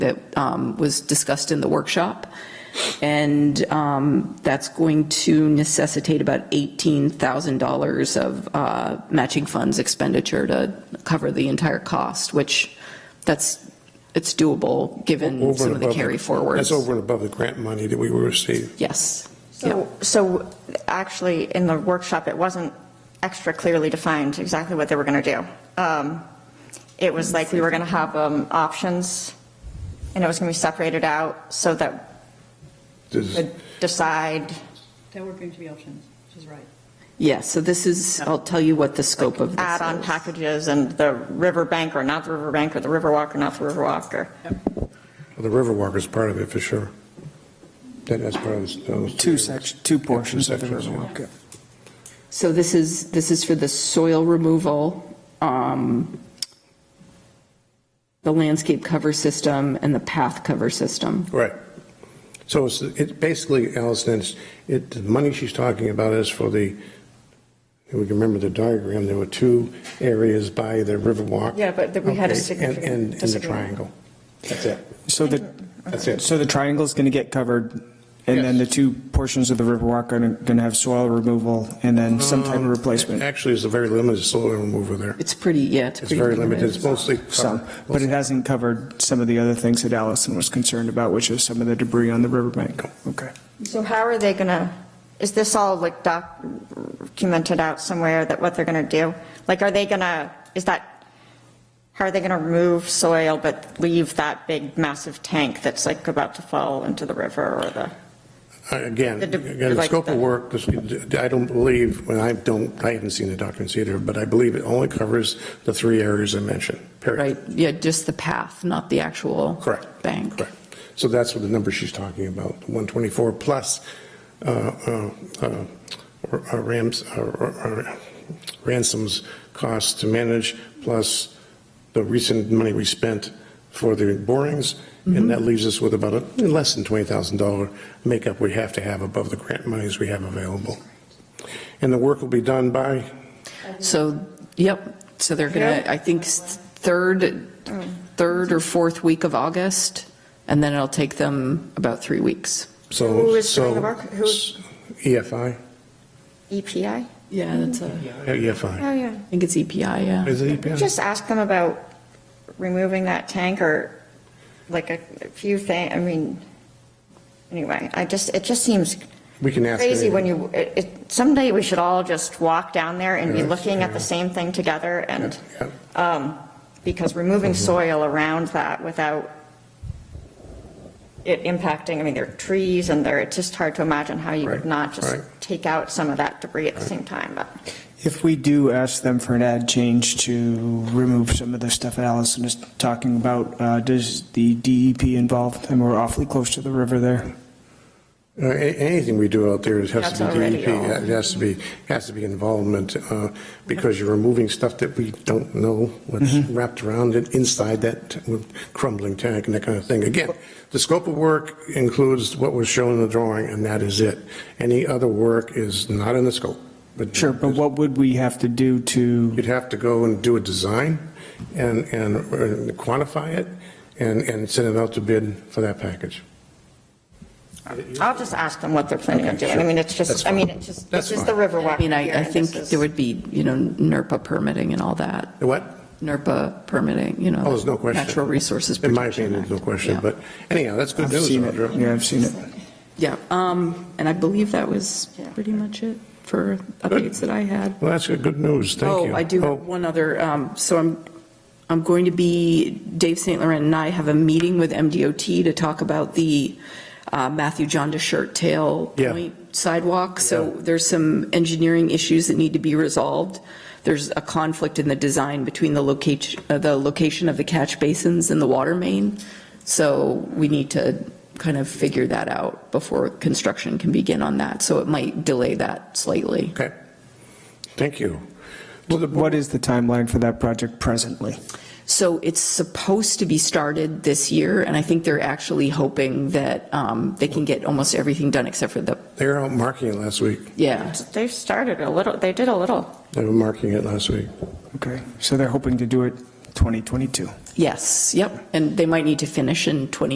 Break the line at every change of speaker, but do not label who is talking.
that um, was discussed in the workshop. And um, that's going to necessitate about $18,000 of uh, matching funds expenditure to cover the entire cost, which that's, it's doable,
Mm,
given
Over
some
and
of the
above
carry forwards.
That's over and above the grant money that we will receive.
Yes.
So, so actually, in the workshop, it wasn't extra clearly defined exactly what they were going to do. Um, It was like we were going to have um, options, and it was going to be separated out so that we
Does-
could decide.
There were going to be options, which is right.
Yes, so this is, I'll tell you what the scope of this is.
add-on packages and the riverbank or not the riverbank or the riverwalk or not the riverwalk or.
Well, The Riverwalk is part of it, for sure. That is part of those- those.
Two sections, two portions of the
sections, yeah.
Riverwalk.
So this is, this is for the soil removal, um, the landscape cover system, and the path cover system.
Right. So it's, it basically, Allison, it's, it, the money she's talking about is for the, if we can remember the diagram, there were two areas by the Riverwalk.
Yeah, but that we had a
Okay, and-
significant
And, and the
disagreement.
triangle. That's it.
So the,
That's it.
so the triangle's going to get covered, and then the two portions of the Riverwalk are going to have soil removal and then some
Mm-hmm.
type of replacement,
Actually, it's a very limited soil removal there.
It's pretty, yeah, it's
It's
pretty.
very limited. It's mostly.
some.
covered.
But it hasn't covered some of the other things that Allison was concerned about, which is some of the debris on the riverbank. Okay.
So how are they going to, is this all like documented out somewhere that what they're going to do? Like, are they going to, is that, how are they going to remove soil but leave that big massive tank that's like about to fall into the river or the?
uh, Again,
The de-
again, the
like
scope of
the-
work, this- I don't believe, well, I don't, I haven't seen the documents either, but I believe it only covers the three areas I mentioned, period.
Right, yeah, just the path, not the actual.
Correct.
Bank.
Correct. So that's what the number she's talking about, 124 plus uh, uh, uh, uh, Rams, uh, uh, ransoms costs to manage, plus the recent money we spent for the borings, and
Mm-hmm.
that leaves us with about a less than $20,000 makeup we have to have above the grant monies we have available. And the work will be done by,
So, yep, so they're gonna, I think, s- third, third or fourth week of August, and then it'll take them about three weeks.
so.
Who is doing
so- E
the work? Who's-
EFI?
EPI?
Yeah, that's a,
EFI.
Oh, yeah.
I think it's EPI, yeah.
E Is it E EPI?
Just ask them about removing that tank or like a a few things. I mean, anyway, I just, it just seems
We can ask.
crazy
anyone.
when you, it- it- someday we should all just walk down there and be
Yeah.
looking at the
Yeah.
same thing together and,
Yeah. Mm-hmm.
um, because removing soil around that without it impacting, I mean, there are trees and there, it's just hard to imagine how you
Right,
would not just
right.
take out some of that debris at the same time, but.
If we do ask them for an ad change to remove some of the stuff that Allison is talking about, uh, does the E DEP involved? And we're awfully close to the river there.
Uh, a- Anything we do out there is- has to
That's
be
already
DEP,
all.
it has to be, has to be involvement, uh, because you're removing stuff that we don't know what's wrapped around it inside that crumbling tank and that kind of thing. Again, the scope of work includes what was shown in the drawing, and that is it. Any other work is not in the scope.
Sure, but what would we have to do to?
You'd have to go and do a design and, and uh, quantify it and, and send it out to bid for that package.
I'll just ask them what they're planning on
Okay,
doing. I
sure.
mean, it's
That's
just, I
fine.
mean, it's just,
That's
this is the
fine.
Riverwalk.
I mean,
here,
E I, I
and
think
this is-
there would be, you know, NERPA permitting and all that.
The What?
NERPA permitting, you know.
Oh, there's no question.
Natural Resources
In
Protection
my opinion, there's no
Act.
question,
Yeah.
but anyhow, that's good
I've
news,
seen it.
Audra.
Yeah, I've seen it.
Yeah, um, and I believe that was
Yeah.
pretty much it for updates that I had.
Well, that's good news, thank you.
Oh, I do have one other, um, so I'm, I'm going to be, Dave St. Laurent and I have a meeting with MDOT to talk about the uh, Matthew John to Shirt Tail
Yeah.
Point sidewalk. So
Yeah.
there's some engineering issues that need to be resolved. There's a conflict in the design between the location, uh, the location of the catch basins and the water main. So we need to kind of figure that out before construction can begin on that. So it might delay that slightly.
Okay, thank you. Well, the-
What is the timeline for that project presently?
So it's supposed to be started this year, and I think they're actually hoping that um, they can get almost everything done except for the,
They were out marking it last week,
yeah.
They've started a little, they did a little.
they were marking it last week.
Okay, so they're hoping to do it 2022.
Yes, yep, and they might need to finish in 20.